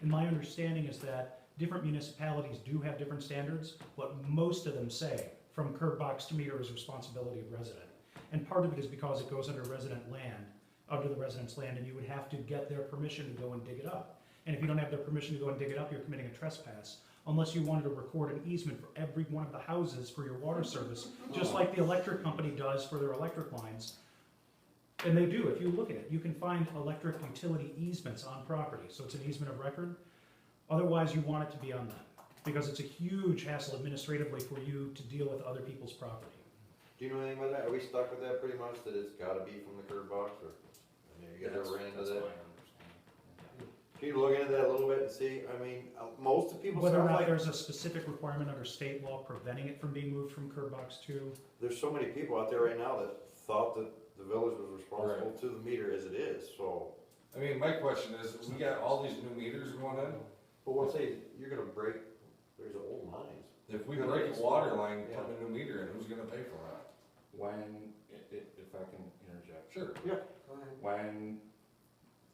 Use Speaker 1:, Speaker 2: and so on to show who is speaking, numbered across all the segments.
Speaker 1: And my understanding is that different municipalities do have different standards, but most of them say from curb box to meter is responsibility of resident. And part of it is because it goes under resident land, under the resident's land, and you would have to get their permission to go and dig it up. And if you don't have their permission to go and dig it up, you're committing a trespass, unless you wanted to record an easement for every one of the houses for your water service, just like the electric company does for their electric lines. And they do, if you look at it, you can find electric utility easements on property, so it's an easement of record. Otherwise, you want it to be on them, because it's a huge hassle administratively for you to deal with other people's property.
Speaker 2: Do you know anything about that? Are we stuck with that pretty much, that it's gotta be from the curb box, or, I mean, you guys ever ran into
Speaker 3: That's my
Speaker 2: that?
Speaker 3: understanding.
Speaker 2: Can you look into that a little bit and see, I mean, uh, most of people
Speaker 1: Whether or
Speaker 2: sound
Speaker 1: not
Speaker 2: like,
Speaker 1: there's a specific requirement under state law preventing it from being moved from curb box to,
Speaker 2: there's so many people out there right now that thought that the village was responsible to the meter as it is, so.
Speaker 4: I mean, my question is, we got all these new meters going in,
Speaker 2: But once they, you're gonna break, there's old lines.
Speaker 4: if we break a water line, put a new meter in, who's gonna pay for that?
Speaker 5: When, i- i- if I can interject,
Speaker 4: Sure.
Speaker 5: when,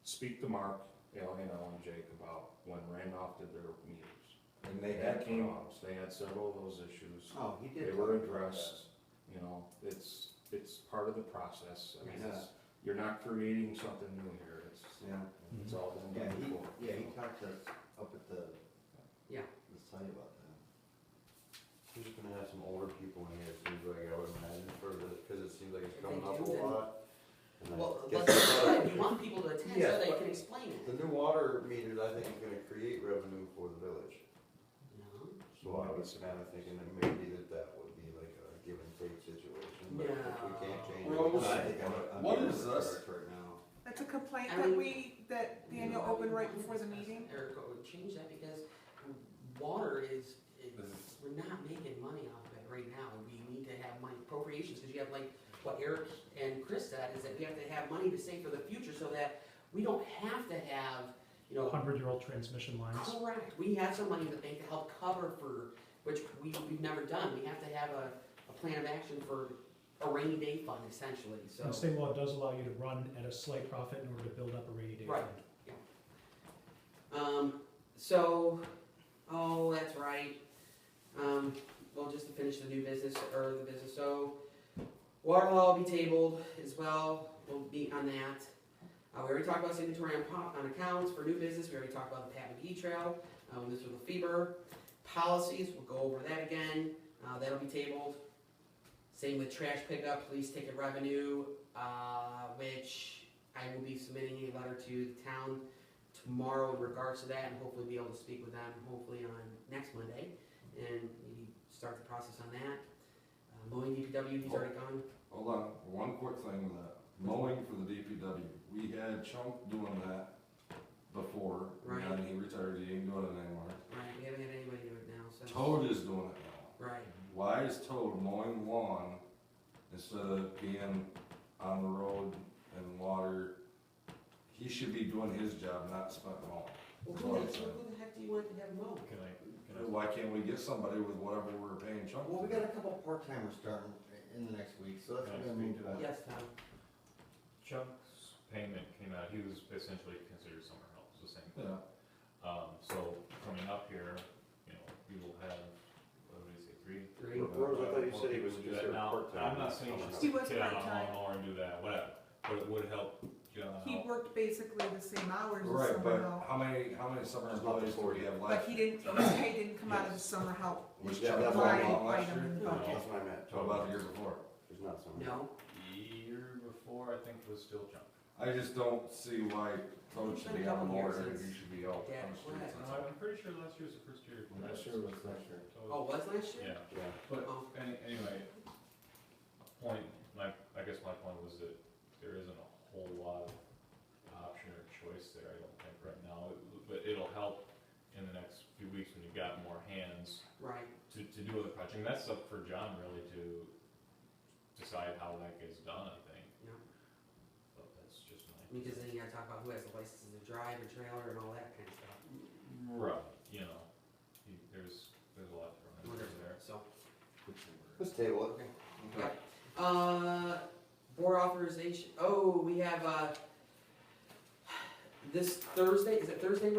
Speaker 5: speak to Mark, Allen and Jake about when Randolph did their meters.
Speaker 4: And they
Speaker 5: They had
Speaker 4: had came,
Speaker 5: problems, they had several of those issues,
Speaker 2: Oh, he
Speaker 5: they were addressed, you know, it's, it's part of the process. I mean, it's, you're not creating something new here, it's,
Speaker 6: Yeah,
Speaker 5: it's all been
Speaker 6: yeah,
Speaker 5: done before.
Speaker 6: he, yeah, he talked to us up at the.
Speaker 7: Yeah.
Speaker 6: The site about that.
Speaker 2: We're just gonna have some older people in here, it seems like, I would imagine, for the, cause it seems like it's
Speaker 7: If
Speaker 2: coming
Speaker 7: they
Speaker 2: up a
Speaker 7: do, then-
Speaker 2: lot. And I
Speaker 7: Well,
Speaker 2: guess
Speaker 7: let's,
Speaker 2: it's not-
Speaker 7: we want people to attend
Speaker 2: Yes,
Speaker 7: so they
Speaker 2: but-
Speaker 7: can explain it.
Speaker 2: The new water meters, I think, is gonna create revenue for the village.
Speaker 7: No,
Speaker 2: So I was kinda thinking that maybe that that would be like a give and take situation, but if we can't change it.
Speaker 4: No. Well,
Speaker 2: I think I'm- I'm
Speaker 4: what
Speaker 2: being
Speaker 4: is this?
Speaker 2: correct Right now.
Speaker 8: That's a complaint
Speaker 7: I
Speaker 8: that
Speaker 7: mean-
Speaker 8: we, that Daniel opened right before the meeting.
Speaker 7: Eric, go- change that because water is, is-
Speaker 4: Is-
Speaker 7: we're not making money off of it right now. We need to have money appropriations, because you have like, what Eric and Chris said, is that we have to have money to save for the future so that we don't have to have, you know,
Speaker 1: hundred-year-old transmission lines?
Speaker 7: Correct, we have some money in the bank to help cover for, which we, we've never done, we have to have a, a plan of action for a rainy day fund essentially,
Speaker 1: And
Speaker 7: so.
Speaker 1: state law does allow you to run at a slight profit in order to build up a rainy day fund.
Speaker 7: Right. Um, so, oh, that's right, um, well, just to finish the new business, or the business, so, water law will be tabled as well, we'll be on that. Uh, we already talked about signatory on, po- on accounts for new business, we already talked about the Pat McGee Trail, um, Mr. LaFever. Policies, we'll go over that again, uh, that'll be tabled. Same with trash pickup, police ticket revenue, uh, which I will be submitting a letter to the town tomorrow in regards to that and hopefully be able to speak with them hopefully on next Monday and maybe start the process on that. Uh, mowing DPW, he's already gone.
Speaker 4: hold on, one quick thing with that, mowing for the DPW, we had Chunk doing that before, and then he retired, he ain't doing it anymore.
Speaker 7: Right, we haven't had anybody do it now, so.
Speaker 4: Toad is doing it now.
Speaker 7: Right,
Speaker 4: Why is Toad mowing lawn instead of being on the road and water? He should be doing his job, not spent mowing.
Speaker 7: well, who the, who the heck do you want to have mow?
Speaker 3: Can I, can I
Speaker 4: Why can't we get somebody with whatever we're paying Chuck?
Speaker 6: Well, we got a couple part-timers starting in the next week, so that's
Speaker 3: Can I
Speaker 6: gonna
Speaker 3: speak
Speaker 6: move
Speaker 3: to
Speaker 6: on.
Speaker 7: Uh, Yes, Tom?
Speaker 3: Chuck's payment came out, he was essentially considered somewhere else, the same
Speaker 4: Yeah,
Speaker 3: thing. Um, so coming up here, you know, we will have, what did we say, three?
Speaker 7: Three.
Speaker 2: Rose, I thought you said he was
Speaker 3: More people do
Speaker 2: just
Speaker 3: that.
Speaker 2: there
Speaker 3: Now,
Speaker 2: part-time.
Speaker 3: I'm not saying
Speaker 8: He
Speaker 3: you
Speaker 8: was
Speaker 3: should get out on
Speaker 8: part-time.
Speaker 3: lawnmower and do that, whatever, but it would help John
Speaker 8: He
Speaker 3: out.
Speaker 8: worked basically the same hours as
Speaker 4: right,
Speaker 8: summer
Speaker 4: but
Speaker 8: help,
Speaker 4: how many, how many summer employees do we have
Speaker 8: but
Speaker 4: left?
Speaker 8: he didn't, his pay didn't come out of the summer help
Speaker 4: Was
Speaker 2: Yeah,
Speaker 4: Chuck
Speaker 2: that's why I-
Speaker 4: mowing lawn
Speaker 8: line
Speaker 4: last
Speaker 8: item in
Speaker 4: year?
Speaker 8: the budget.
Speaker 2: That's what I meant.
Speaker 4: How about the year before?
Speaker 2: There's not so many.
Speaker 7: No?
Speaker 3: Year before, I think, was still Chuck.
Speaker 4: I just don't see why Toad should be out mowing and he should be out
Speaker 7: Yeah,
Speaker 4: on the streets.
Speaker 3: No, I'm pretty sure last year was the first year.
Speaker 5: Last year was last year.
Speaker 7: Oh, was last year?
Speaker 3: Yeah.
Speaker 2: Yeah.
Speaker 3: But
Speaker 7: Oh.
Speaker 3: any, anyway, point, my, I guess my point was that there isn't a whole lot of option or choice there, I don't think right now. But it'll help in the next few weeks when you've got more hands
Speaker 7: Right.
Speaker 3: to, to do other projects. And that's up for John really to decide how that gets done, I think.
Speaker 7: Yeah.
Speaker 3: But that's just my.
Speaker 7: Because then you gotta talk about who has the license to drive a trailer and all that kind of stuff.
Speaker 3: Right, you know, he- there's, there's a lot of room there.
Speaker 7: So,
Speaker 2: Let's table
Speaker 7: okay. Yeah. Uh, board authorization, oh, we have, uh, this Thursday, is it Thursday, Rob?